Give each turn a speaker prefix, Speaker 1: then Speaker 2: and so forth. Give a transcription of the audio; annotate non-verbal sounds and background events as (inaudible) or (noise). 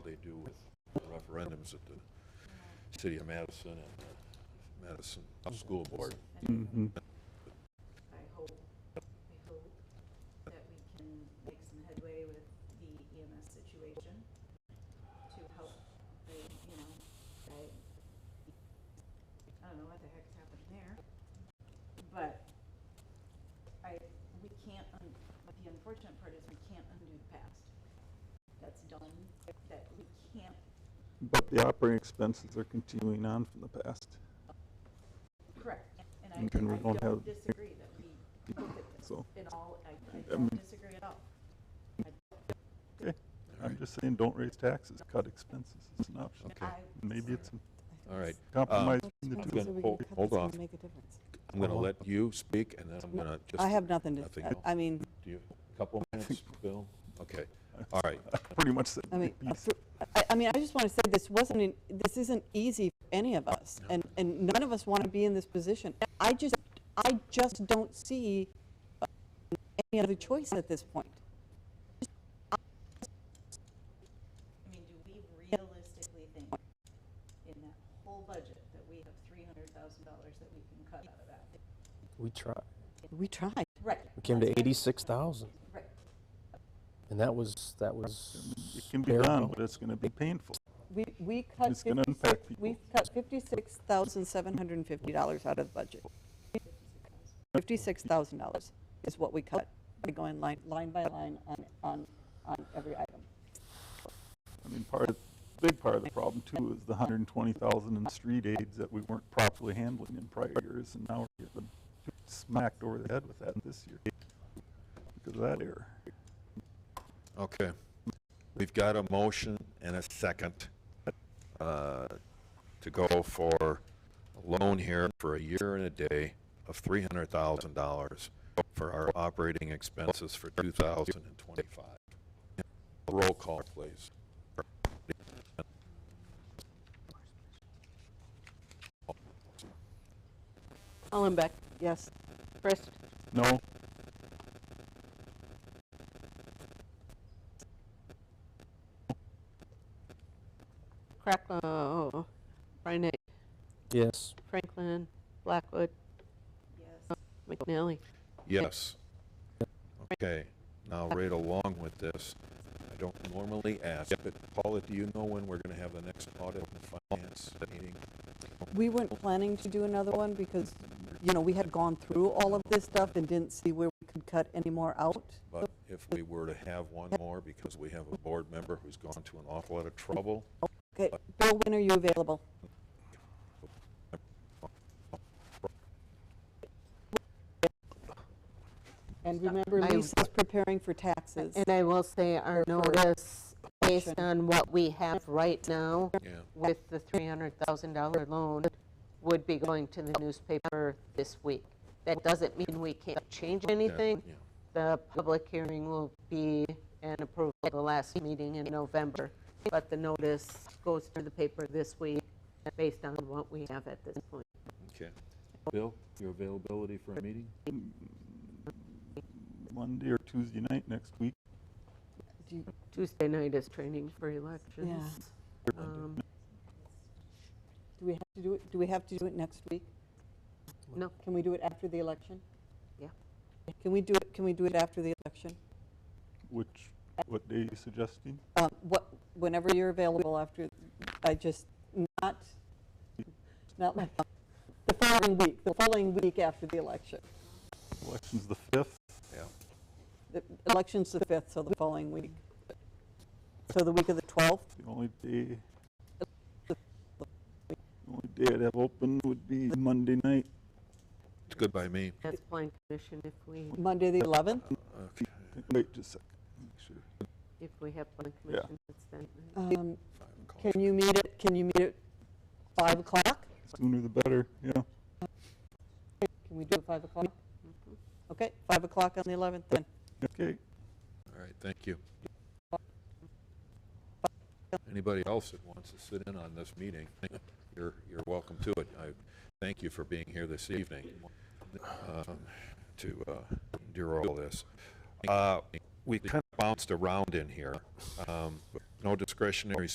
Speaker 1: do with referendums at the City of Madison and the Madison School Board.
Speaker 2: I hope, I hope that we can make some headway with the EMS situation to help, the, you know, I, I don't know what the heck's happening there, but I, we can't, un- but the unfortunate part is we can't undo the past. That's done, that we can't,
Speaker 3: But the operating expenses are continuing on from the past.
Speaker 2: correct, and I,
Speaker 3: And can we
Speaker 2: I
Speaker 3: don't
Speaker 2: don't
Speaker 3: have-
Speaker 2: disagree that we look at this
Speaker 3: So,
Speaker 2: in all, I, I
Speaker 3: I
Speaker 2: don't
Speaker 3: mean-
Speaker 2: disagree at all.
Speaker 3: I'm just saying, don't raise taxes, cut expenses. It's an option.
Speaker 1: Okay,
Speaker 2: I-
Speaker 3: Maybe it's a
Speaker 1: all right.
Speaker 3: compromise between
Speaker 1: I'm
Speaker 3: the
Speaker 1: gonna
Speaker 3: two.
Speaker 1: So we can hold- cut this hold and off.
Speaker 4: Make a difference.
Speaker 1: I'm going to let you speak, and then I'm going to just...
Speaker 4: I have nothing to,
Speaker 1: nothing
Speaker 4: I-
Speaker 1: else.
Speaker 4: I mean,
Speaker 1: Do you, a couple minutes, Bill? Okay, all right.
Speaker 3: I (laughs) Pretty much said,
Speaker 4: I mean,
Speaker 3: beat
Speaker 4: for- I, I mean, I just want to say this wasn't, an- this isn't easy for any of us. And, and none of us want to be in this position. I just, I just don't see uh, any other choice at this point.
Speaker 2: I mean, do we realistically think in that whole budget that we have three hundred thousand dollars that we can cut out of that?
Speaker 5: We tried.
Speaker 4: We tried.
Speaker 2: Right.
Speaker 5: We came to eighty-six thousand,
Speaker 2: Right,
Speaker 5: and that was that was.
Speaker 3: It can be
Speaker 5: bare
Speaker 3: done,
Speaker 5: bones.
Speaker 3: but it's gonna be painful.
Speaker 4: We, we cut
Speaker 3: It's gonna impact
Speaker 4: 56, we cut $56,750 out of the budget. $56,000 is what we cut, by going line, line by line on, on, on every item.
Speaker 3: I mean, part of, big part of the problem too is the hundred and twenty thousand in street aids that we weren't properly handling in prior years, and now we're getting smacked over the head with that this year. Because of that error.
Speaker 1: Okay. We've got a motion and a second uh, to go for a loan here for a year and a day of $300,000 for our operating expenses for 2025. Roll call, please.
Speaker 4: Hollenbeck, yes. Frist,
Speaker 3: No,
Speaker 6: Cracklow, Reinet,
Speaker 5: Yes.
Speaker 6: Franklin, Blackwood,
Speaker 2: yes.
Speaker 6: McNally.
Speaker 1: Yes. Okay, now right along with this, I don't normally ask, but Paula, do you know when we're going to have the next audit and finance meeting?
Speaker 4: We weren't planning to do another one because, you know, we had gone through all of this stuff and didn't see where we could cut any more out.
Speaker 1: But if we were to have one more, because we have a board member who's gone to an awful lot of trouble,
Speaker 4: Okay, Bill, when are you available? And remember,
Speaker 6: I-
Speaker 4: Lisa's preparing for taxes.
Speaker 6: And I will say our notice, based
Speaker 4: Action.
Speaker 6: on what we have right now
Speaker 1: yeah,
Speaker 6: with the $300,000 loan, would be going to the newspaper this week. That doesn't mean we can't change anything.
Speaker 1: yeah.
Speaker 6: The public hearing will be and approved at the last meeting in November, but the notice goes to the paper this week based on what we have at this point.
Speaker 1: Okay. Bill, your availability for a meeting?
Speaker 3: Monday or Tuesday night next week.
Speaker 4: Do you-
Speaker 6: Tuesday night is training for elections. Um,
Speaker 4: Do we have to do it, do we have to do it next week?
Speaker 6: No.
Speaker 4: Can we do it after the election?
Speaker 6: Yeah.
Speaker 4: Can we do it, can we do it after the election?
Speaker 3: Which, what day are you suggesting?
Speaker 4: Um, What, whenever you're available after, I just, not, not like, the following week, the following week after the election.
Speaker 3: Election's the fifth.
Speaker 1: Yeah.
Speaker 4: The Election's the 5th, so the following week. So the week of the 12th?
Speaker 3: The only day, the only day I'd have open would be Monday night.
Speaker 1: It's good by me.
Speaker 6: That's plan commission if we,
Speaker 4: Monday, the 11th?
Speaker 1: Uh, Okay.
Speaker 3: Wait just a second. Make sure.
Speaker 6: if we have plan
Speaker 3: Yeah.
Speaker 6: commission, it's that night.
Speaker 4: Um,
Speaker 1: five o'clock.
Speaker 4: Can you meet at, can you meet at 5 o'clock?
Speaker 3: Sooner the better, yeah.
Speaker 4: Can we do it 5 o'clock? Okay, 5 o'clock on the 11th then.
Speaker 3: Okay.
Speaker 1: All right, thank you. Anybody else that wants to sit in on this meeting, you're, you're welcome to it. I thank you for being here this evening um, to uh, endure all this. Uh, We kind of bounced around in here. Um, No discretionary